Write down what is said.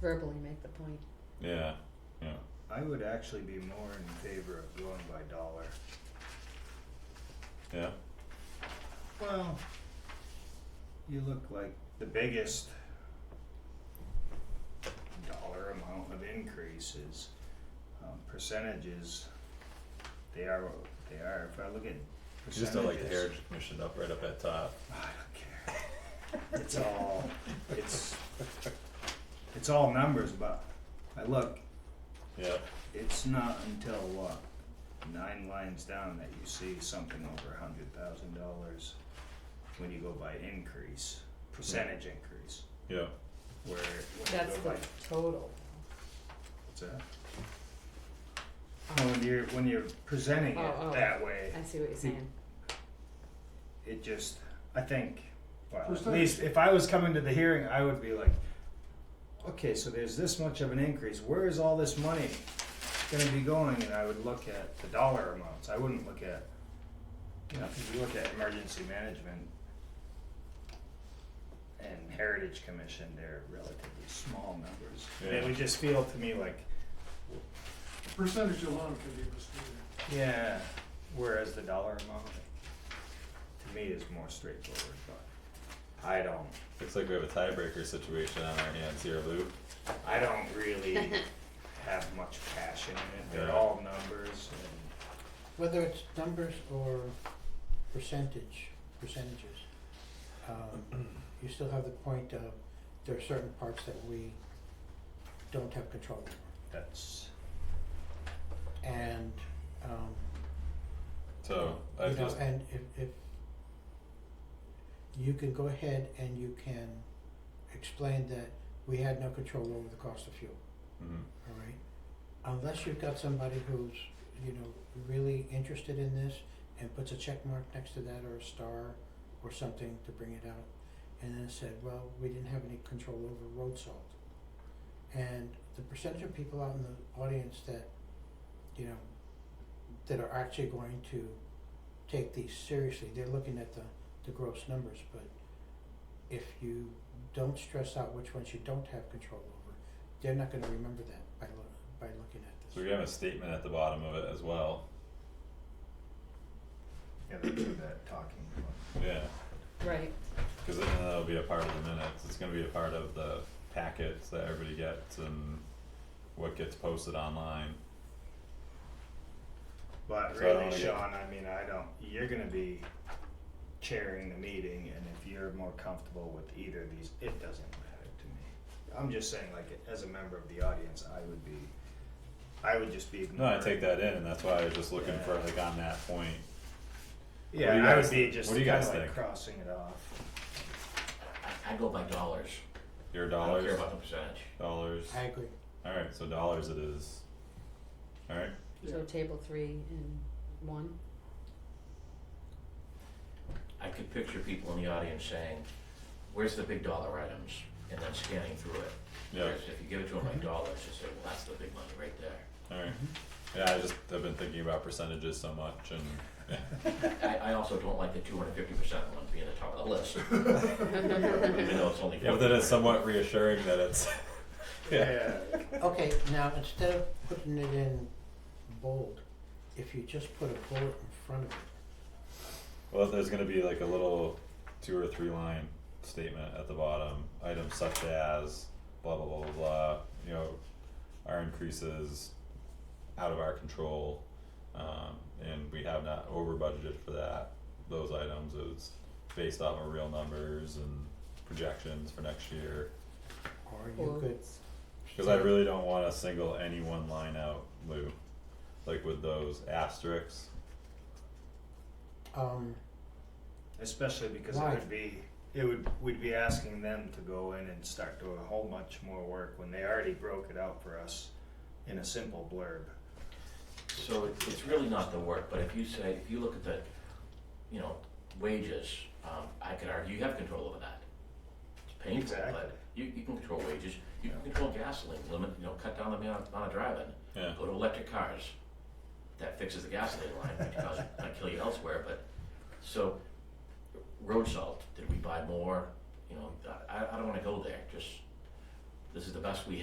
verbally make the point. Yeah, yeah. I would actually be more in favor of going by dollar. Yeah. Well, you look like the biggest dollar amount of increases, um, percentages. They are what they are. If I look at percentages, Just don't like the Heritage Commission up right up at top. I don't care. it's all it's it's all numbers, but I look. Yeah, It's not until what nine lines down that you see something over a hundred thousand dollars when you go by increase percentage increase. yeah. Where when That's you the go by total. what's that? No, when you're when you're presenting it Oh, oh. that way, I see what you're saying. it just I think well at Percentage. least if I was coming to the hearing I would be like okay so there's this much of an increase where is all this money going to be going and I would look at the dollar amounts I wouldn't look at you know if you look at emergency management and heritage commission they're relatively small numbers and it Yeah. would just feel to me like Percentage alone can be misleading. yeah whereas the dollar amount to me is more straightforward but I don't Looks like we have a tiebreaker situation on our hands here, Lou. I don't really have much passion in it. They're Yeah. all numbers and Whether it's numbers or percentage, percentages, um, you still have the point of there are certain parts that we don't have control over. that's And, um, So I you know, just and if, if you can go ahead and you can explain that we had no control over the cost of fuel, mhm, all right? Unless you've got somebody who's, you know, really interested in this and puts a check mark next to that or a star or something to bring it out. And then it said, well, we didn't have any control over road salt. And the percentage of people out in the audience that, you know, that are actually going to take these seriously, they're looking at the, the gross numbers, but if you don't stress out which ones you don't have control over, they're not gonna remember that by loo- by looking at this. so we have a statement at the bottom of it as well. yeah, that's what that talking about. Yeah, Right. because then that'll be a part of the minutes. It's gonna be a part of the packets that everybody gets and what gets posted online. But So I don't really, wanna get- Sean, I mean, I don't. You're gonna be chairing the meeting, and if you're more comfortable with either of these, it doesn't matter to me. I'm just saying, like, as a member of the audience, I would be, I would just be. No, I ignoring- take that in, and that's why I was just looking for Yeah. like on that point. What Yeah, do you I guys would be think? just What do you kinda guys like think? crossing it off. I, I go by dollars. Your I don't dollars, care about the percentage. dollars. I agree. All right, so dollars it is. All right. So table three and one. I could picture people in the audience saying, where's the big dollar items? And then scanning through it. Yeah. Whereas if you give it to them like dollars, you say, well, that's the big money right there. All right. Yeah, I just I've been thinking about percentages so much, and I, I also don't like the two hundred fifty percent one being the top of the list. Even though it's only. yeah, but then it's somewhat reassuring that it's. yeah. Okay, now instead of putting it in bold, if you just put a bullet in front of it, Well, there's gonna be like a little two or three line statement at the bottom, items such as blah blah blah blah blah, you know, our increases out of our control, um, and we have not over budgeted for that, those items, it's based off of real numbers and projections for next year. or you could. Quotes. Cause I really don't wanna single any one line out, Lou, like with those asterisks, Um, Especially because it Why? would be, it would, we'd be asking them to go in and start doing a whole bunch more work when they already broke it out for us in a simple blurb. So it, it's really not the work, but if you say, if you look at the, you know, wages, um, I could argue you have control over that. It's painful, Exactly. but you, you can control wages, you can Yeah. control gasoline, limit, you know, cut down the amount, amount of driving, yeah, go to electric cars. That fixes the gasoline line, which causes, might kill you elsewhere, but, so, road salt, did we buy more? You know, I, I don't wanna go there, just, this is the best we